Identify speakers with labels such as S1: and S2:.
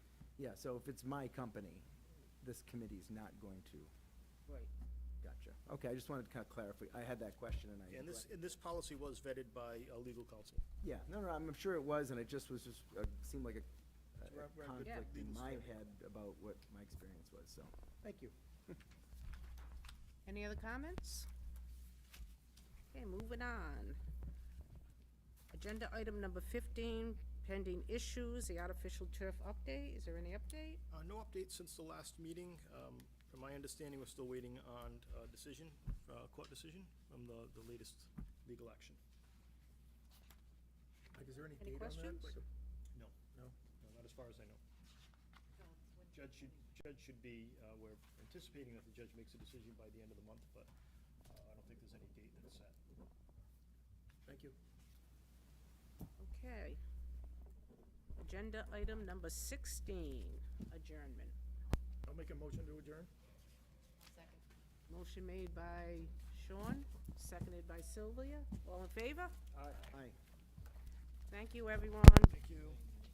S1: Yeah, so if it's my company, this committee's not going to,
S2: Right.
S1: gotcha. Okay, I just wanted to kind of clarify, I had that question and I.
S3: And this,
S1: neglected.
S3: and this policy was vetted by uh, legal counsel.
S1: Yeah, no, no, I'm sure it was, and it just was, just, uh, seemed like a-
S3: It's
S1: a
S3: right- right, good
S1: conflict in
S3: legal
S1: my
S3: study.
S1: head about what my experience was, so, thank you.
S2: Any other comments? Okay, moving on. Agenda item number fifteen, pending issues, the artificial turf update. Is there any update?
S3: Uh, No updates since the last meeting. Um, From my understanding, we're still waiting on a decision, uh, court decision from the, the latest legal action.
S4: Like, is there any
S2: Any
S4: date on that?
S2: questions?
S4: Like a-
S3: No.
S4: No?
S3: No, Not as far as I know. Judge should, judge should be, uh, we're anticipating that the judge makes a decision by the end of the month, but uh, I don't think there's any date that's set.
S4: Thank you.
S2: Okay. Agenda item number sixteen, adjournment.
S4: I'll make a motion to adjourn.
S2: Motion made by Sean, seconded by Sylvia. All in favor?
S1: Aye.
S2: Thank you, everyone.
S3: Thank you.